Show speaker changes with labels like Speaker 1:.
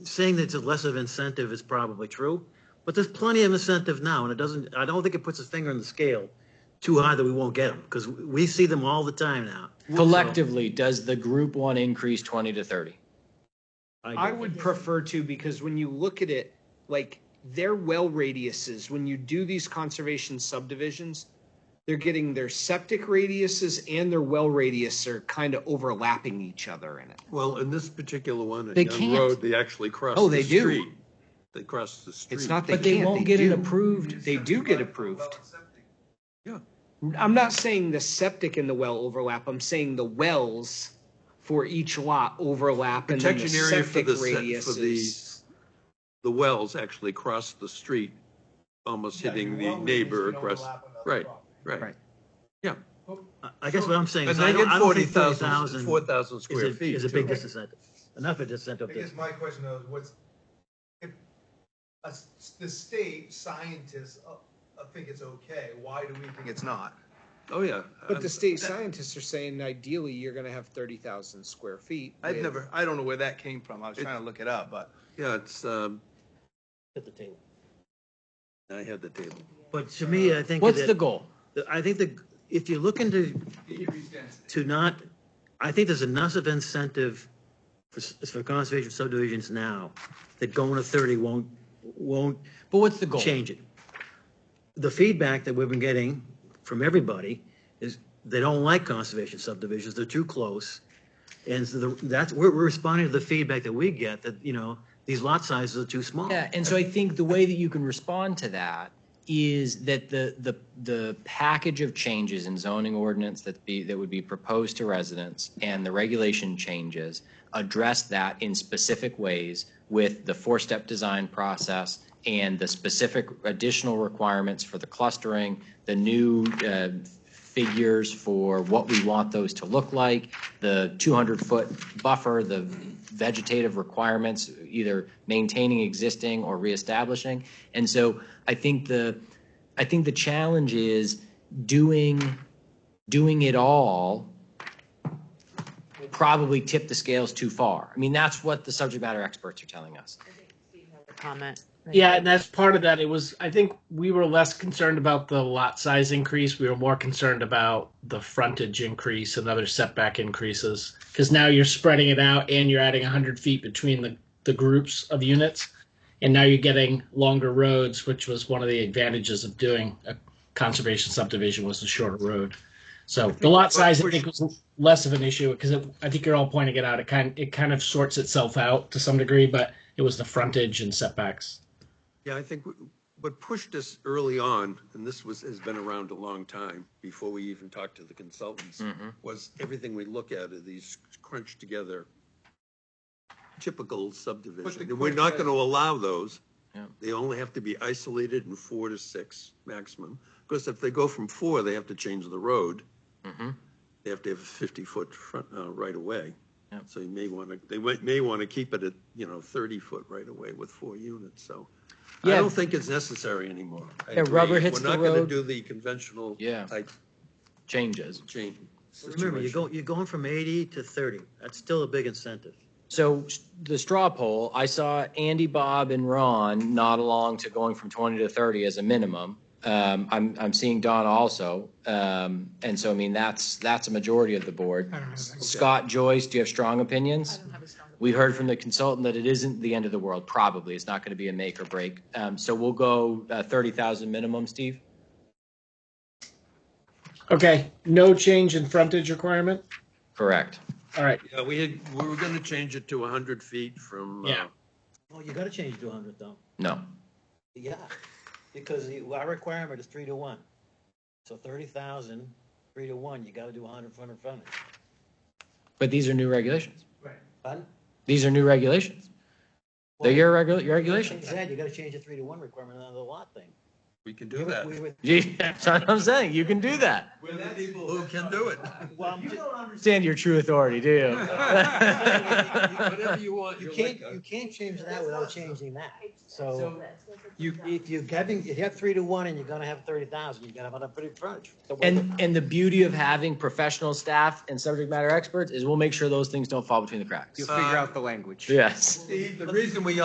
Speaker 1: saying that it's less of incentive is probably true, but there's plenty of incentive now, and it doesn't, I don't think it puts a finger on the scale too high that we won't get them, because we see them all the time now.
Speaker 2: Collectively, does the group one increase twenty to thirty?
Speaker 3: I would prefer to because when you look at it, like their well radiuses, when you do these conservation subdivisions, they're getting their septic radiuses and their well radius are kind of overlapping each other in it.
Speaker 4: Well, in this particular one,
Speaker 2: They
Speaker 4: at Young
Speaker 2: can't.
Speaker 4: Road, they actually cross
Speaker 3: Oh,
Speaker 4: the
Speaker 3: they do.
Speaker 4: street. They cross the street.
Speaker 3: It's not they
Speaker 2: But they
Speaker 3: can't,
Speaker 2: won't get it
Speaker 3: do.
Speaker 2: approved.
Speaker 3: They do get approved.
Speaker 4: Yeah.
Speaker 3: I'm not saying the septic and the well overlap. I'm saying the wells for each lot overlap and then the
Speaker 4: Protection area for
Speaker 3: septic
Speaker 4: the, se- for the,
Speaker 3: radiuses.
Speaker 4: the wells actually cross the street, almost hitting the neighbor across. Right, right.
Speaker 3: Right.
Speaker 1: I- I guess what I'm saying
Speaker 4: And
Speaker 1: is, I
Speaker 4: they
Speaker 1: don't,
Speaker 4: get
Speaker 1: I don't
Speaker 4: forty
Speaker 1: think forty thousand
Speaker 4: thousand, four thousand
Speaker 1: is
Speaker 4: square
Speaker 1: a,
Speaker 4: feet.
Speaker 1: is a big
Speaker 4: too.
Speaker 1: disincentive. Enough of disincentive.
Speaker 5: I guess my question though is what's, if, a s- the state scientists uh, uh, think it's okay, why do we think it's not?
Speaker 4: Oh, yeah.
Speaker 3: But the
Speaker 4: Um,
Speaker 3: state scientists are saying ideally you're gonna have thirty thousand square feet.
Speaker 5: I've
Speaker 3: with-
Speaker 5: never, I don't know where that came from, I was trying to look it up, but.
Speaker 4: Yeah, it's, um,
Speaker 1: At the table.
Speaker 4: I had the table.
Speaker 1: But to me, I think
Speaker 2: What's the
Speaker 1: that,
Speaker 2: goal?
Speaker 1: I think the, if you're looking to, to not, I think there's enough of incentive for, s- for conservation subdivisions now that going to thirty won't, won't
Speaker 2: But what's the goal?
Speaker 1: change it. The feedback that we've been getting from everybody is they don't like conservation subdivisions, they're too close. And so the- that's, we're we're responding to the feedback that we get, that, you know, these lot sizes are too small.
Speaker 2: Yeah, and so I think the way that you can respond to that is that the, the, the package of changes in zoning ordinance that be, that would be proposed to residents and the regulation changes address that in specific ways with the four-step design process and the specific additional requirements for the clustering, the new, uh, figures for what we want those to look like, the 200-foot buffer, the vegetative requirements, either maintaining existing or reestablishing. And so I think the, I think the challenge is doing, doing it all will probably tip the scales too far. I mean, that's what the subject matter experts are telling us.
Speaker 6: comment.
Speaker 7: Yeah, and that's part of that. It was, I think we were less concerned about the lot size increase. We were more concerned about the frontage increase and other setback increases. Because now you're spreading it out and you're adding 100 feet between the, the groups of units. And now you're getting longer roads, which was one of the advantages of doing a conservation subdivision was the shorter road. So the lot size, I think, was less of an issue because I think you're all pointing it out. It kind, it kind of sorts itself out to some degree, but it was the frontage and setbacks.
Speaker 4: Yeah, I think w- what pushed us early on, and this was, has been around a long time, before we even talked to the consultants,
Speaker 1: Hmm.
Speaker 4: was everything we look at are these crunched together typical subdivision. And We're not gonna allow those.
Speaker 2: Yeah.
Speaker 4: They only have to be isolated in four to six maximum. Because if they go from four, they have to change the road.
Speaker 2: Mhm.
Speaker 4: They have to have a fifty-foot front, uh, right away.
Speaker 2: Yep.
Speaker 4: So you may wanna, they might- may wanna keep it at, you know, thirty-foot right away with four units, so. I
Speaker 2: Yeah.
Speaker 4: don't think it's necessary anymore. I
Speaker 2: Yeah, rubber
Speaker 4: agree.
Speaker 2: hits the
Speaker 4: We're not gonna
Speaker 2: road.
Speaker 4: do the conventional
Speaker 2: Yeah.
Speaker 4: type
Speaker 2: Changes.
Speaker 4: change.
Speaker 1: Remember, you're
Speaker 4: situation.
Speaker 1: going, you're going from eighty to thirty. That's still a big incentive.
Speaker 2: So s- the straw poll, I saw Andy, Bob, and Ron nod along to going from 20 to 30 as a minimum. Um, I'm, I'm seeing Donna also. Um, and so, I mean, that's, that's a majority of the board. Scott, Joyce, do you have strong opinions? We heard from the consultant that it isn't the end of the world, probably. It's not going to be a make or break. Um, so we'll go uh, 30,000 minimum, Steve?
Speaker 7: Okay, no change in frontage requirement?
Speaker 2: Correct.
Speaker 7: All right,
Speaker 4: Yeah, we had, we were gonna change it to hundred feet from. uh,
Speaker 7: Yeah.
Speaker 1: Oh, you gotta change to hundred though.
Speaker 2: No.
Speaker 1: Yeah, because you- our requirement is three to one. So thirty thousand, three to one, you gotta do hundred front and front.
Speaker 2: But these are new regulations.
Speaker 1: Pardon?
Speaker 2: These are new regulations. They're your regu- your regulations.
Speaker 1: Like I said, you gotta change the three to one requirement on the lot thing.
Speaker 4: We can do that.
Speaker 2: Gee, That's what I'm saying. You can do that.
Speaker 8: We're the people
Speaker 4: Who can do it?
Speaker 8: You don't
Speaker 2: Understand your true authority, do you?
Speaker 4: Whatever you want.
Speaker 1: You
Speaker 4: you're
Speaker 1: can't,
Speaker 4: like a-
Speaker 1: you can't change that without changing that. So
Speaker 6: You,
Speaker 1: if you're having, if you have three to one and you're gonna have thirty thousand, you're gonna have a pretty crunch.
Speaker 2: And, and the beauty of having professional staff and subject matter experts is we'll make sure those things don't fall between the cracks.
Speaker 3: You'll figure out the language.
Speaker 2: Yes.
Speaker 4: The reason we